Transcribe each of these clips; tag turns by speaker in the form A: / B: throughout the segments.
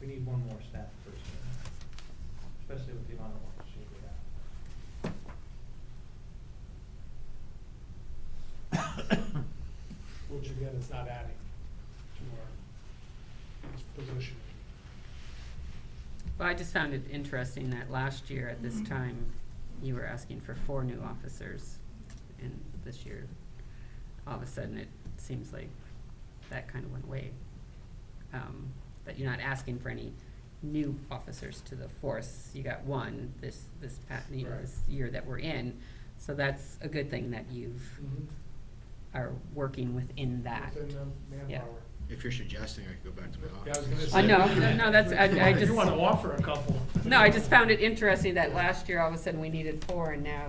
A: we need one more staff person, especially with the amount of work she we have.
B: which again is not adding to our position.
C: Well, I just found it interesting that last year at
B: Mm-hmm.
C: this time, you were asking for four new officers. And this year, all of a sudden, it seems like that kind of went away. Um, That you're not asking for any new officers to the force. You got one this, this pa you know,
B: Right.
C: this year that we're in. So that's a good thing that you've, are working within that.
B: Mm-hmm. Within the
C: Yeah.
B: manpower.
D: If you're suggesting, I could go back to my
B: Yeah, I was
D: office.
B: gonna
C: I
B: say-
C: know, no, no, that's, I, I just.
B: You wanna offer a couple.
C: No, I just found it interesting that last year, all of a sudden, we needed four, and now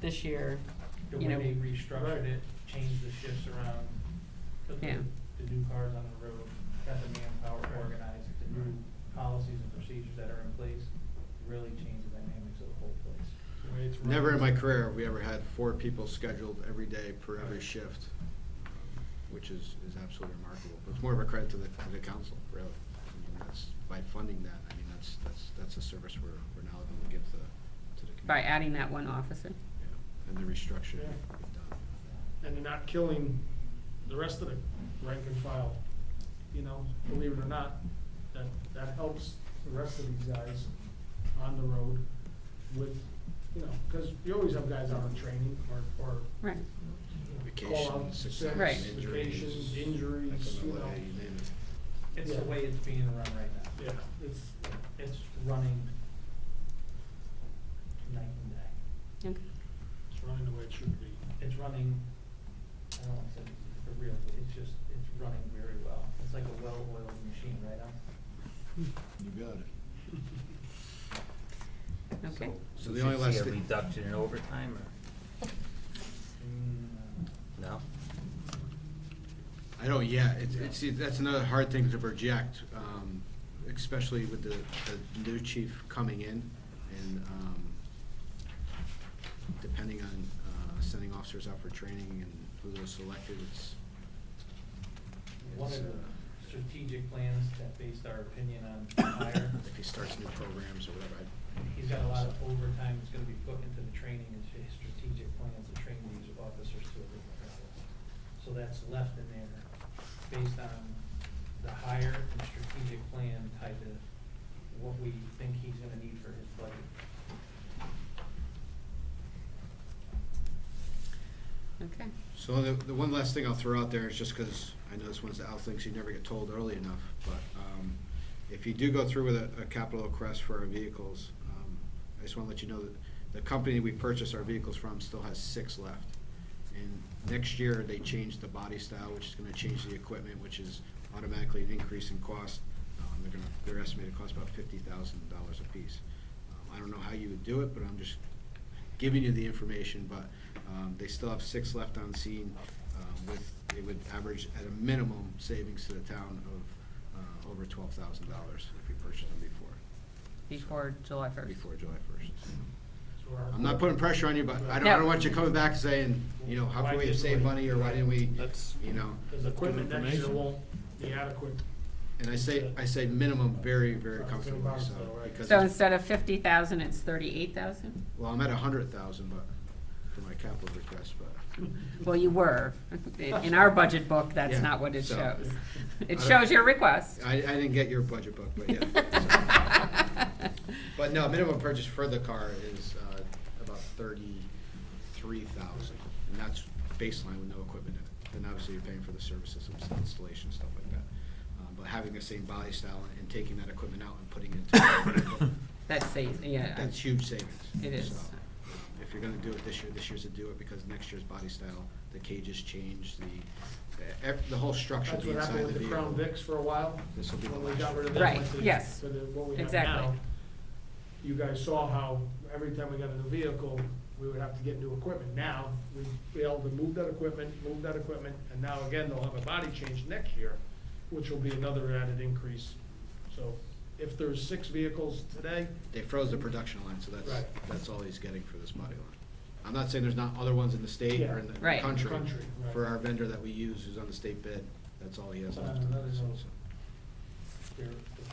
C: this year,
A: The
C: You
A: way
C: know-
A: they restructured it, changed the shifts around, put the,
C: Yeah.
A: the new cars on the road, got the manpower organized, the new policies and procedures that are in place, really changed the dynamics of the whole place.
B: The way it's run.
D: Never in my career have we ever had four people scheduled every day per every
B: Right.
D: shift, which is, is absolutely remarkable. But It's more of a credit to the, to the council, really. I mean, that's, by funding that, I mean, that's, that's, that's a service we're, we're now able to give to, to the community.
C: by adding that one officer.
D: Yeah, And the restructuring
B: Yeah.
D: we've done.
B: And they're not killing the rest of the rank and file, you know, believe it or not, that, that helps the rest of these guys on the road with, you know, cause you always have guys out on training or, or
C: Right.
B: call out
D: Vacations, sick
B: sick,
D: time,
C: Right.
D: injuries.
B: vacations, injuries, you know.
D: FMLA, you name it.
A: It's the
B: Yeah.
A: way it's being run right now.
B: Yeah, it's,
A: It's running night and day.
C: Okay.
B: it's running the way it should be.
A: It's running, I don't want to say it's for real, but it's just, it's running very well. It's like a well-oiled machine right now.
D: You got it.
C: Okay.
D: So
E: We
D: the only
E: should
D: last
E: see a
D: thing-
E: reduction in overtime or, no?
D: I don't yet. It's, it's, see, that's another hard thing to project, um, especially with the, the new chief coming in and, um, depending on, uh, sending officers out for training and who those selected, it's,
A: One of
D: it's,
A: the
D: uh,
A: strategic plans that based our opinion on hire,
D: if he starts new programs or whatever, I.
A: he's got a lot of overtime that's gonna be put into the training and his strategic plans to train these officers to a different level. So that's left in there based on the hire and strategic plan tied to what we think he's gonna need for his budget.
C: Okay.
D: So the, the one last thing I'll throw out there is just because I know this one's the out thing, so you never get told early enough, but, um, if you do go through with a, a capital request for our vehicles, um, I just wanna let you know that the company we purchased our vehicles from still has six left. And next year, they changed the body style, which is gonna change the equipment, which is automatically an increase in cost. Um, they're gonna, they're estimated to cost about fifty thousand dollars apiece. Um, I don't know how you would do it, but I'm just giving you the information, but um, they still have six left on scene um, with, it would average at a minimum savings to the town of uh, over twelve thousand dollars if we purchase them before,
C: Before July first.
D: before July first.
B: So our-
D: I'm not putting pressure on you, but I don't, I
C: No.
D: don't want you coming back saying, you know, how
B: Why
D: could we have
B: didn't
D: saved
B: we?
D: money or why didn't we,
F: That's-
D: you know?
B: Cause equipment next year
F: Information.
B: won't be adequate.
D: And I say, I say minimum very, very
B: Sounds good,
D: comfortably, so.
B: though, right?
D: because
C: So
D: it's-
C: instead of fifty thousand, it's thirty-eight thousand?
D: Well, I'm at a hundred thousand, but, for my capital request, but.
C: Well, you were. In our budget book, that's
D: Yeah,
C: not what it
D: so-
C: shows. It
D: I don't-
C: shows your request.
D: I, I didn't get your budget book, but yeah. so. But no, minimum purchase for the car is uh, about thirty-three thousand, and that's baseline with no equipment in it. Then obviously you're paying for the services, ins- installation, stuff like that. Um, But having the same body style and taking that equipment out and putting it into,
C: That says, yeah. I-
D: that's huge savings.
C: It is.
D: So, If you're gonna do it this year, this year's to do it, because next year's body style, the cages change, the, the, ev- the whole structure of
B: That's
D: the
B: what
D: inside
B: happened
D: of the
B: with the
D: vehicle.
B: Crown Vics for a while.
D: This will be the
B: When we
D: last
B: got
D: year.
B: rid of that.
C: Right,
B: went to-
C: yes.
B: To the, what we have
C: Exactly.
B: now. You guys saw how every time we got a new vehicle, we would have to get new equipment. Now, we be able to move that equipment, move that equipment, and now again, they'll have a body change next year, which will be another added increase. So if there's six vehicles today,
D: They froze the production line, so that's,
B: Right.
D: that's all he's getting for this body line. I'm not saying there's not other ones in the state or in the
C: Right.
D: country.
B: Country, right. Uh,
D: For our vendor that we use who's on the state bid, that's all he has
B: But on
D: left.
B: another note,
D: So-
B: they're-